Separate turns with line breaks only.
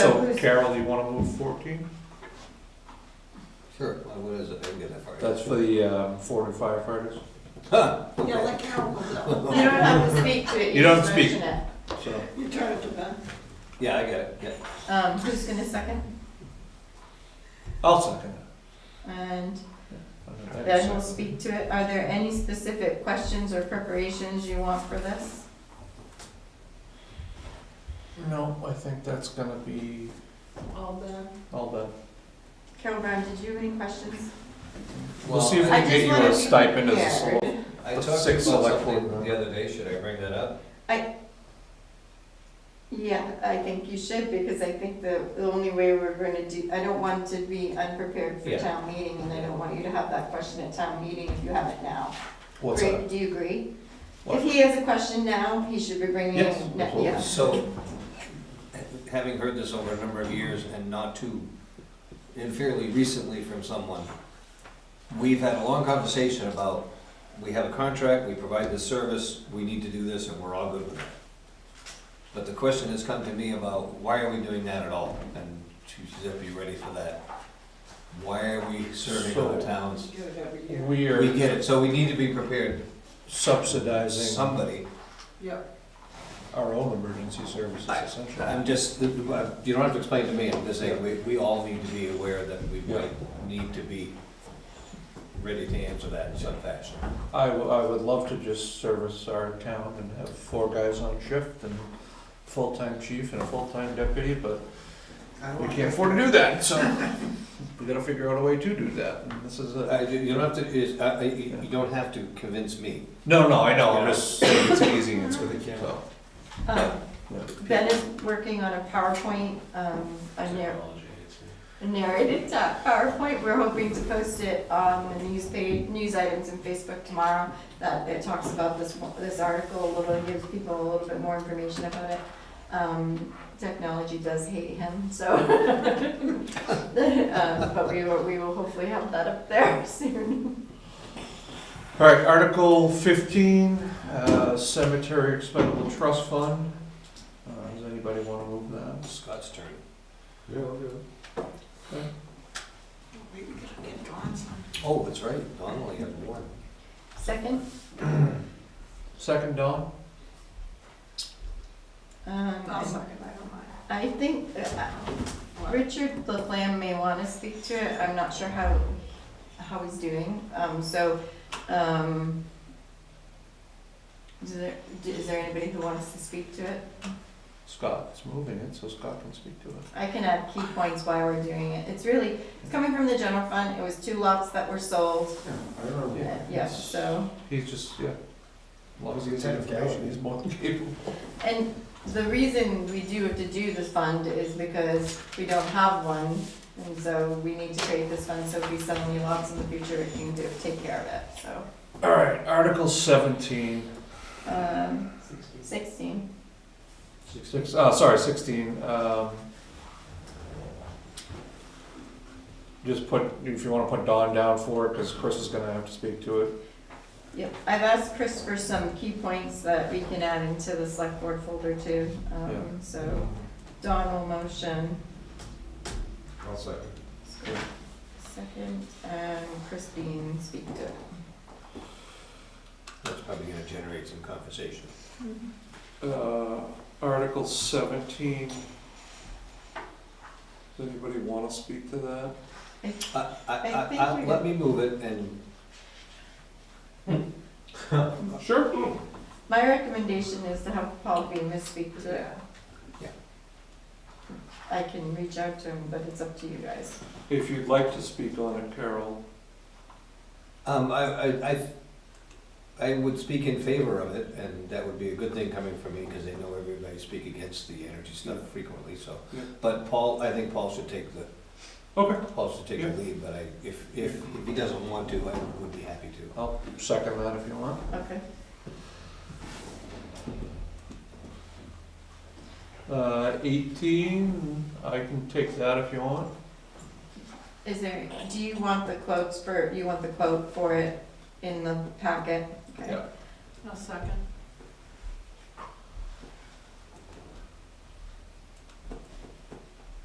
So Carol, you wanna move fourteen?
Sure, well, what is it? I didn't get that far.
That's for the um, Florida firefighters,
Huh,
Yeah, like Carol was up.
You don't have to speak to it.
You don't
just
speak.
mention it.
so.
You turn it to Ben.
yeah, I get it, yeah.
Um, who's gonna second?
I'll second
And
that.
then we'll speak to it. Are there any specific questions or preparations you want for this?
No, I think that's gonna be
All Ben.
all done.
Carol Brown, did you have any questions?
We'll see if we
I
can
just
get you
wanna
a
be
stipend as a
prepared.
solo.
I
The
talked
six
about
select board
something
member.
the other day, should I bring that up?
Yeah, I think you should, because I think the, the only way we're gonna do, I don't want to be unprepared for
Yeah.
town meeting, and I don't want you to have that question at town meeting if you have it now.
What's
Agree-
that?
Do you agree?
What?
If he has a question now, he should be bringing it.
Yes,
ne-
absolutely.
yeah.
So, having heard this over a number of years and not too, and fairly recently from someone, we've had a long conversation about, we have a contract, we provide this service, we need to do this, and we're all good with it. But the question has come to me about, why are we doing that at all? And she said, be ready for that. Why are we serving other
So-
towns?
You get it every year.
We
We
are
get it, so we need to be prepared,
subsidizing
somebody.
Yep.
our own emergency services
I-
essentially.
I'm just, uh, you don't have to explain to me, I'm just saying, we, we all need to be aware that we might need to be ready to answer that in some fashion.
I, w- I would love to just service our town and have four guys on shift and full-time chief and a full-time deputy, but we can't afford to do that, so we gotta figure out a way to do that, and this is
I-
a.
uh, You you don't have to, is- I- I- you you don't have to convince me.
No, no, I know, I'm just saying it's easy, it's for the kids. so.
Um,
yeah.
Ben is working on a PowerPoint, um, a narr- a narrated uh, PowerPoint. We're hoping to post it on the news page, news items in Facebook tomorrow. That it talks about this, one- this article a little, gives people a little bit more information about it. Um, technology does hate him, so. Um, But we will, we will hopefully have that up there soon.
All right, Article fifteen, uh, Cemetery Expendable Trust Fund. Uh, Does anybody wanna move that?
Scott's turn.
We can get Dawn's on.
Oh, that's right, Don only had one.
Second,
Second, Don?
um,
I'll second, I don't mind.
I think, uh,
What?
Richard Laflamme may want to speak to it, I'm not sure how, how he's doing, um, so, um, is there, is there anybody who wants to speak to it?
Scott's moving it, so Scott can speak to it.
I can add key points why we're doing it, it's really, it's coming from the general fund, it was two lots that were sold, uh, yeah, so.
He's just, yeah. As long as he
He's
gets the
a
information,
coward.
he's more than capable.
And the reason we do have to do this fund is because we don't have one, and so we need to create this fund, so if we sell any lots in the future, we can do, take care of it, so.
All right, Article seventeen,
Um, sixteen.
six, uh, sorry, sixteen, um. Just put, if you wanna put Don down for it, cause Chris is gonna have to speak to it.
Yep, I've asked Chris for some key points that we can add into the select board folder too.
Yeah.
Um, so Don will motion,
I'll second.
second, and Chris Bean speak to it.
That's probably gonna generate some conversation.
Uh, Article seventeen. Does anybody wanna speak to that?
I, I,
I
I,
think
I-
we-
let me move it and
Sure.
My recommendation is to have Paul Bean speak to it.
Yeah.
I can reach out to him, but it's up to you guys.
If you'd like to speak on it, Carol.
Um, I, I, I, I would speak in favor of it, and that would be a good thing coming from me, because I know everybody speak against the energy stuff frequently, so.
Yeah.
But Paul, I think Paul should take the,
Okay.
Paul should take
Yeah.
the lead, but I, if, if, if he doesn't want to, I would be happy to.
I'll second that if you want.
Okay.
Uh, eighteen, I can take that if you want.
Is there, do you want the quotes for, you want the quote for it in the packet? Okay.
Yeah.
I'll second.